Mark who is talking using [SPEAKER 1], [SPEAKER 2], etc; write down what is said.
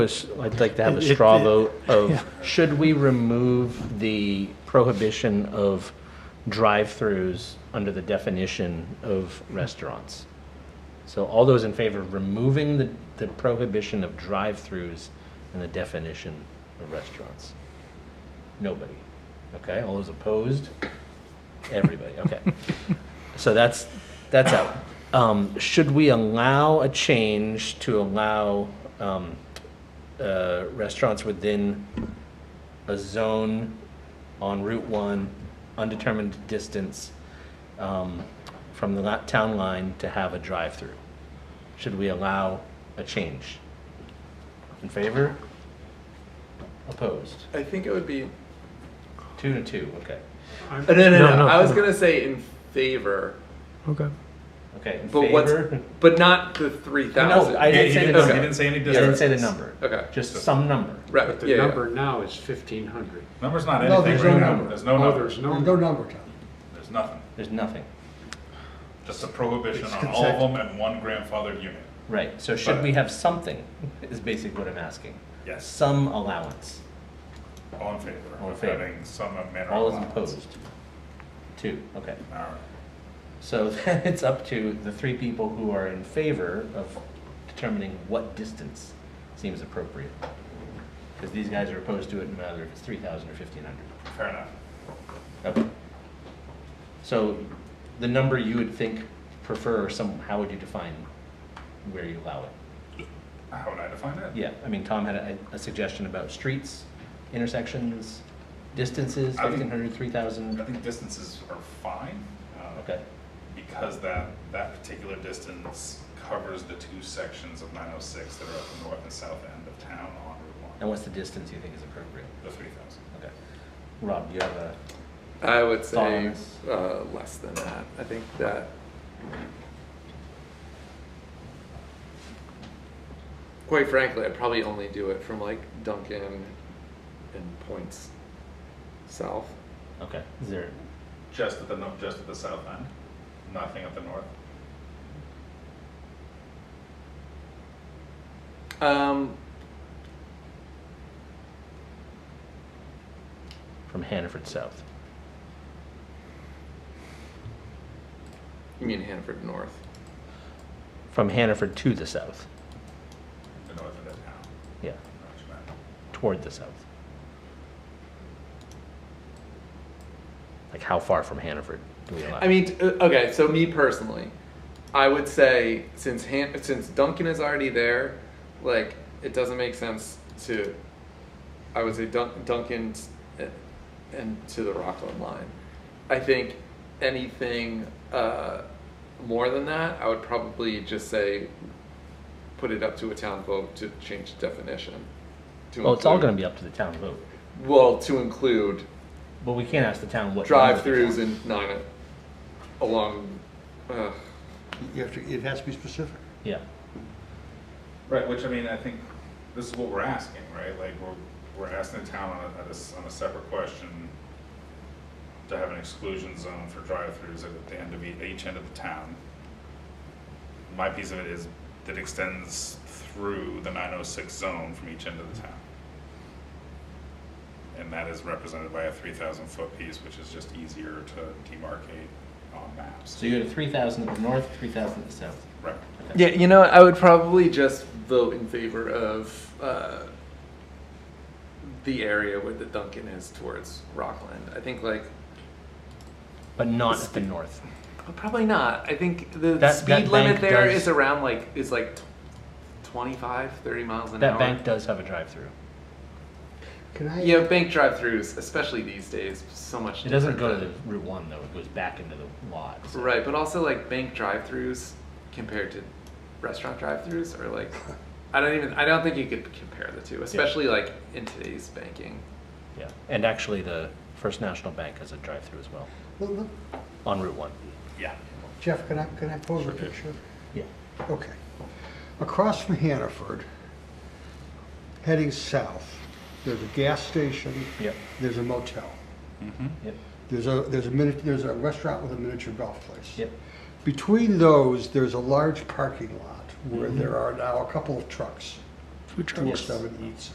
[SPEAKER 1] was, I'd like to have a
[SPEAKER 2] It- it-
[SPEAKER 1] straw
[SPEAKER 2] it-
[SPEAKER 1] vote
[SPEAKER 2] yeah.
[SPEAKER 1] of, should we remove the prohibition of drive-throughs under the definition of restaurants? So all those in favor of removing the, the prohibition of drive-throughs in the definition of restaurants? Nobody. Okay, all those opposed? Everybody, okay. So that's, that's out. Um, should we allow a change to allow, um, uh, restaurants within a zone on Route One, undetermined distance, um, from the la- town line to have a drive-through? Should we allow a change? In favor? Opposed?
[SPEAKER 3] I think it would be.
[SPEAKER 1] Two to two, okay.
[SPEAKER 3] No, no, no.
[SPEAKER 2] No, no.
[SPEAKER 3] I was gonna say in favor,
[SPEAKER 2] Okay.
[SPEAKER 1] Okay, in
[SPEAKER 3] but what's
[SPEAKER 1] favor?
[SPEAKER 3] but not the three thousand.
[SPEAKER 1] No, I
[SPEAKER 4] You-
[SPEAKER 1] didn't
[SPEAKER 4] you
[SPEAKER 1] say the
[SPEAKER 4] you
[SPEAKER 3] number.
[SPEAKER 4] didn't say any
[SPEAKER 1] Yeah, I didn't say the
[SPEAKER 4] distance.
[SPEAKER 1] number.
[SPEAKER 3] Okay.
[SPEAKER 1] Just some number.
[SPEAKER 3] right.
[SPEAKER 5] But the
[SPEAKER 3] yeah, yeah.
[SPEAKER 5] number now is fifteen hundred.
[SPEAKER 4] Number's not
[SPEAKER 6] No,
[SPEAKER 4] anything
[SPEAKER 6] there's
[SPEAKER 4] right
[SPEAKER 6] no
[SPEAKER 4] now.
[SPEAKER 6] number.
[SPEAKER 4] There's no
[SPEAKER 5] Oh,
[SPEAKER 4] number.
[SPEAKER 5] there's
[SPEAKER 6] There's
[SPEAKER 5] no,
[SPEAKER 6] no number, Tom.
[SPEAKER 4] There's nothing.
[SPEAKER 1] There's nothing.
[SPEAKER 4] Just a prohibition
[SPEAKER 6] It's
[SPEAKER 4] on all of
[SPEAKER 6] consent.
[SPEAKER 4] them and one grandfathered unit.
[SPEAKER 1] Right, so should
[SPEAKER 4] But-
[SPEAKER 1] we have something, is basically what I'm asking.
[SPEAKER 4] Yes.
[SPEAKER 1] Some allowance,
[SPEAKER 4] All in favor
[SPEAKER 1] All in
[SPEAKER 4] of
[SPEAKER 1] favor.
[SPEAKER 4] having some manner of.
[SPEAKER 1] all is
[SPEAKER 4] allowance.
[SPEAKER 1] opposed. Two, okay.
[SPEAKER 4] All right.
[SPEAKER 1] So then it's up to the three people who are in favor of determining what distance seems appropriate. Because these guys are opposed to it, no matter if it's three thousand or fifteen hundred.
[SPEAKER 4] Fair enough.
[SPEAKER 1] Okay. So the number you would think prefer, or some, how would you define where you allow it?
[SPEAKER 4] How would I define it?
[SPEAKER 1] Yeah, I mean, Tom had a, a suggestion about streets, intersections, distances,
[SPEAKER 4] I think-
[SPEAKER 1] fifteen hundred, three
[SPEAKER 4] I
[SPEAKER 1] thousand.
[SPEAKER 4] think distances are fine. uh,
[SPEAKER 1] Okay,
[SPEAKER 4] Because that, that particular distance covers the two sections of 906 that are at the north and south end of town on Route
[SPEAKER 1] and
[SPEAKER 4] 1,
[SPEAKER 1] what's the distance you think is appropriate?
[SPEAKER 4] the 3,000.
[SPEAKER 1] Okay. Rob, you have a,
[SPEAKER 3] I would say
[SPEAKER 1] Thoughts?
[SPEAKER 3] uh, less than that. I think that. Quite frankly, I'd probably only do it from like Duncan and points south.
[SPEAKER 1] okay, is there,
[SPEAKER 4] Just at the, no- just at the south end, nothing at the north.
[SPEAKER 3] Um,
[SPEAKER 1] from Hannaford South?
[SPEAKER 3] you mean Hanford North?
[SPEAKER 1] From Hannaford to the south,
[SPEAKER 4] the north end of town.
[SPEAKER 1] yeah,
[SPEAKER 4] not much matter.
[SPEAKER 1] toward the south. Like how far from Hannaford do we allow?
[SPEAKER 3] I mean, t- uh, okay. So me personally, I would say since Han- since Duncan is already there, like it doesn't make sense to. I would say Dun- Duncan's uh, and to the Rockland line. I think anything uh, more than that, I would probably just say put it up to a town vote to change the definition. To
[SPEAKER 1] Well, Oh, it's all gonna be up to the town vote,
[SPEAKER 3] be well to include
[SPEAKER 1] but we can't ask the town what. number they want.
[SPEAKER 3] drive-throughs and nine along. Uh,
[SPEAKER 6] You have to, it has to be specific.
[SPEAKER 1] Yeah,
[SPEAKER 4] Right, which I mean, I think this is what we're asking, right? Like, we're, we're asking the town on a, at a s- on a separate question to have an exclusion zone for drive-throughs at the end of e- each end of the town. My piece of it is that extends through the nine oh six zone from each end of the town. And that is represented by a three thousand foot piece, which is just easier to demarcate on maps.
[SPEAKER 1] so you had three thousand to the north, three thousand to the south.
[SPEAKER 4] Right,
[SPEAKER 3] Yeah, you know, I would probably just vote in favor of uh, the area where the Duncan is towards Rockland. I think like
[SPEAKER 1] But not at the north.
[SPEAKER 3] oh, probably not. I think the
[SPEAKER 1] That- that
[SPEAKER 3] speed
[SPEAKER 1] bank
[SPEAKER 3] limit there is
[SPEAKER 1] does-
[SPEAKER 3] around like is like t- 25, 30 miles an
[SPEAKER 1] That
[SPEAKER 3] hour.
[SPEAKER 1] bank does have a drive-through.
[SPEAKER 6] Can I?
[SPEAKER 3] yeah, bank drive-throughs, especially these days, so much.
[SPEAKER 1] It doesn't go
[SPEAKER 3] different
[SPEAKER 1] to the
[SPEAKER 3] than-
[SPEAKER 1] Route One though, it goes back into the lot. so-
[SPEAKER 3] right, but also like bank drive-throughs compared to restaurant drive-throughs are like I don't even I don't think you could compare the two, especially like in today's banking.
[SPEAKER 1] Yeah, and actually the First National Bank has a drive-through as well,
[SPEAKER 6] Look, look,
[SPEAKER 1] on Route One.
[SPEAKER 4] yeah.
[SPEAKER 6] Jeff, can I, can I pose a picture?
[SPEAKER 1] Yeah.
[SPEAKER 6] Okay. Across from Hannaford, heading south, there's a gas station.
[SPEAKER 1] Yep.
[SPEAKER 6] There's a motel.
[SPEAKER 1] Yep,
[SPEAKER 6] There's a, there's a mini, there's a restaurant with a miniature golf place.
[SPEAKER 1] yep,
[SPEAKER 6] Mm-hmm. Between those, there's a large parking lot where there are now a couple of trucks.
[SPEAKER 2] food
[SPEAKER 6] Four
[SPEAKER 2] trucks.
[SPEAKER 6] seven eats.